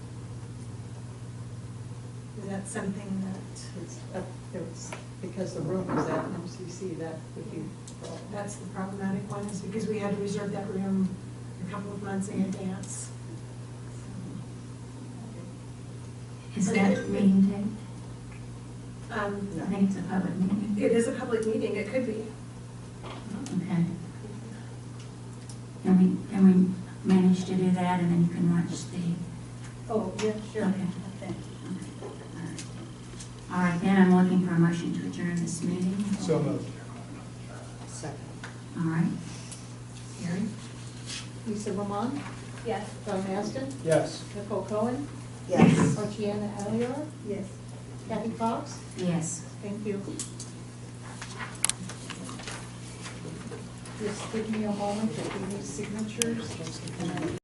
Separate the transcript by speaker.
Speaker 1: that's something that,
Speaker 2: It's, up- it was, because the room was at MCC, that would be the problem.
Speaker 1: that's the problematic one, is because we had to reserve that room a couple of months in advance.
Speaker 3: Is that the meeting date?
Speaker 1: Um,
Speaker 3: I think it's a public meeting.
Speaker 1: It is a public meeting, it could be.
Speaker 3: Okay. Can we, can we manage to do that and then you can watch the?
Speaker 4: Oh, yeah, sure.
Speaker 3: Okay.
Speaker 4: Thank you.
Speaker 3: All right, then I'm looking for a motion to adjourn this meeting.
Speaker 5: So moved.
Speaker 3: All right. Gary?
Speaker 2: Lisa Roman,
Speaker 4: Yes.
Speaker 2: Don Aston,
Speaker 5: Yes.
Speaker 2: Nicole Cohen,
Speaker 6: Yes.
Speaker 2: Archiana Alliar,
Speaker 4: Yes.
Speaker 2: Kathy Fox,
Speaker 3: Yes.
Speaker 2: thank you. Just give me a moment, if you need signatures, and I